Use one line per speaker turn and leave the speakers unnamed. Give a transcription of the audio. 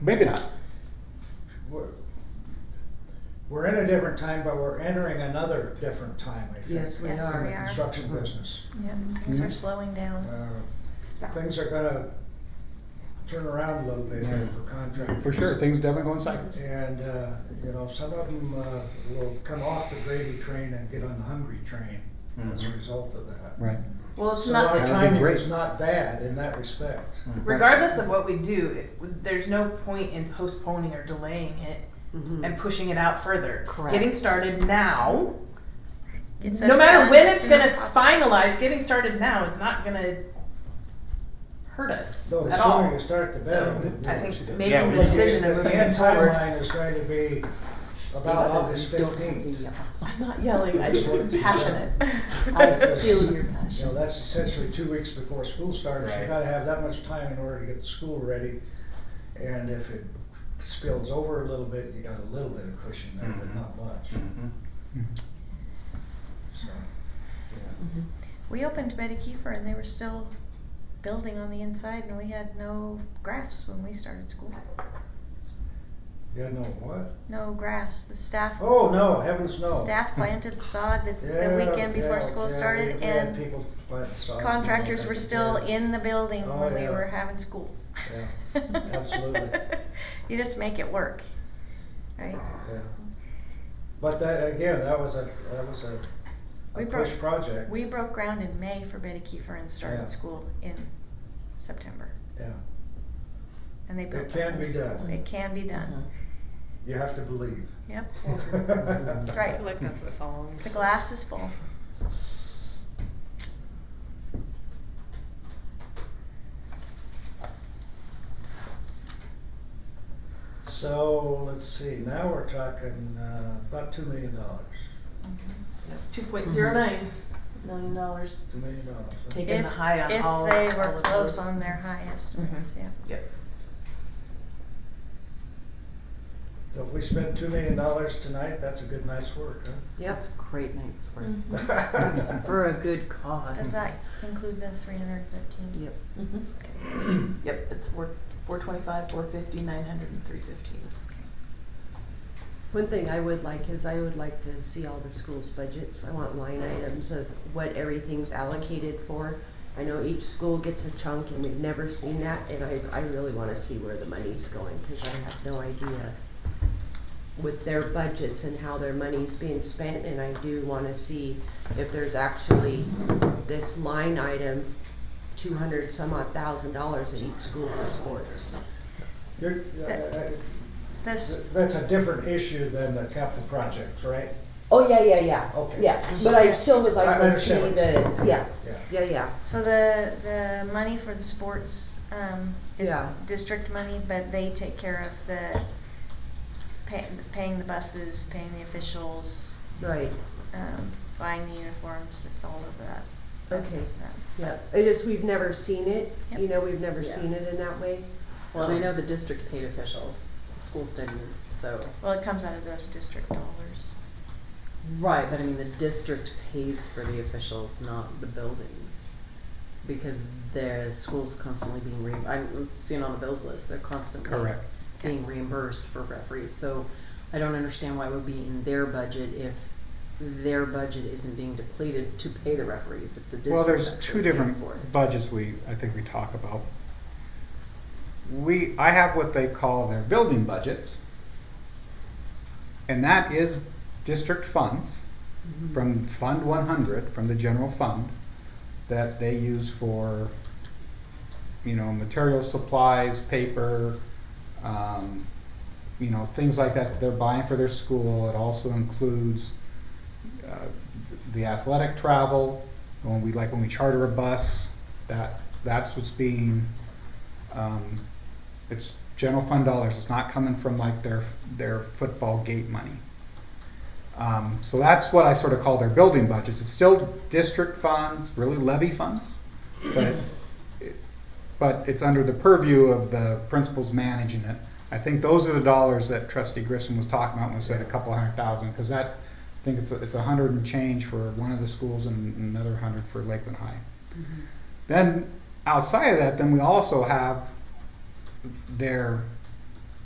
Maybe not.
We're, we're in a different time, but we're entering another different time, I think.
Yes, we
in
are.
the construction
Mm-hmm.
business.
Yeah, things are
Mhm.
slowing down.
Uh, Things are gonna turn around a little bit here for contractors.
For sure, things definitely go in cycles.
And, uh, you know, some of them, uh, will come off the gravy train and get on the hungry train as a
Mhm.
result of that.
Mm-hmm. Right.
Well, it's
So
not,
our
That'd be
timing
great. Mm.
is not bad in that respect.
regardless of what we do, it, there's no point in postponing or delaying it
Mm-hmm.
and pushing it out further.
Correct.
Getting started now,
Gets
no
us
matter
done
when
as
it's
soon as
gonna
possible.
finalize, getting started now is not gonna hurt us
So the
at
sooner you
all.
start, the better.
So I think
Yeah,
making
we
the
should do
decision and
The
moving
end
it forward.
timeline is going to be about August
uh,
fifteenth.
uh,
I'm not yelling, I just am passionate.
I feel your
You know,
passion.
that's essentially two weeks before school starts. You
Right.
gotta have that much time in order to get the school ready. And if it spills over a little bit, you got a little bit of cushion there, but
Mhm.
not much,
Mhm.
so.
Mm-hmm.
We opened Betty Kiefer and they were still building on the inside and we had no grass when we started school.
You know what?
No grass. The staff
Oh, no, heavens no.
staff planted the sod the,
Yeah,
the weekend before
yeah,
school
yeah, we-
started
we had
and
people plant sod and all
contractors were
kinds of
still
things.
in the building
Oh,
when we
yeah.
were having school.
Yeah, absolutely.
you just make it work, right?
Yeah. But that, again, that was a, that was a,
We
a
broke-
push project.
We broke ground in May for Betty Kiefer and
Yeah.
started school in September.
Yeah,
And they built.
It
the
can be
house.
done.
It can be
Uh-huh.
done.
you have to believe.
Yep.
That's
right.
Like that's a song.
The glass is full.
So, let's see, now we're talking, uh, about two million dollars,
Two point zero nine million dollars.
two million dollars.
Take it.
If,
Getting the high on
if
all-
they
all
were
of
close
those. Mm-hmm.
on their high estimates, yeah.
Yep.
So if we spend two million dollars tonight, that's a good night's work, huh?
That's a great night's work.
Mm-hmm.
It's for a good cause.
Does that include the three hundred thirteen?
Yep.
Yep, it's four, four twenty-five, four fifty, nine hundred and three fifteen.
One thing I would like is I would like to see all the schools' budgets. I want line items of what everything's allocated for. I know each school gets a chunk and we've never seen that and I, I really wanna see where the money's going, cause I have no idea with their budgets and how their money's being spent and I do wanna see if there's actually this line item, two hundred some odd thousand dollars at each school for sports.
You're, uh, uh,
This,
that's a different issue than the capital projects, right?
Oh, yeah, yeah, yeah.
Okay.
Yeah, but I still would like
I
to see
understand what you're
the,
saying.
yeah,
Yeah.
yeah, yeah.
so the, the money for the sports, um, is
Yeah.
district money, but they take care of the pay, paying the buses, paying the officials,
Right,
um, buying the uniforms, it's all of that. Um,
Okay.
that.
yeah, it is, we've never seen it, you
Yep.
know, we've never
Yeah.
seen it in that way.
Well, and I know the district paid officials, the schools didn't, so.
Well, it comes out of those district dollars.
Right, but I mean, the district pays for the officials, not the buildings. Because their school's constantly being re, I'm seeing on the bills list, they're constantly
Correct.
being reimbursed for referees, so I don't understand why it would be in their budget if their budget isn't being depleted to pay the referees, if the district's
Well, there's two
actually paying
different
for it.
budgets we, I think we talk about. We, I have what they call their building budgets. And that is district funds from Fund one hundred, from the general fund, that they use for, you know, material supplies, paper, um, you know, things like that that they're buying for their school. It also includes uh, the athletic travel, when we, like when we charter a bus, that, that's what's being, um, it's general fund dollars, it's not coming from like their, their football gate money. Um, so that's what I sort of call their building budgets, it's still district funds, really levy funds, but it's, it- but it's under the purview of the principals managing it. I think those are the dollars that trustee Grissom was talking about when he said a couple hundred thousand, because that, I think it's, a- it's a hundred and change for one of the schools and another hundred for Lakeland High. Then outside of that, then we also have their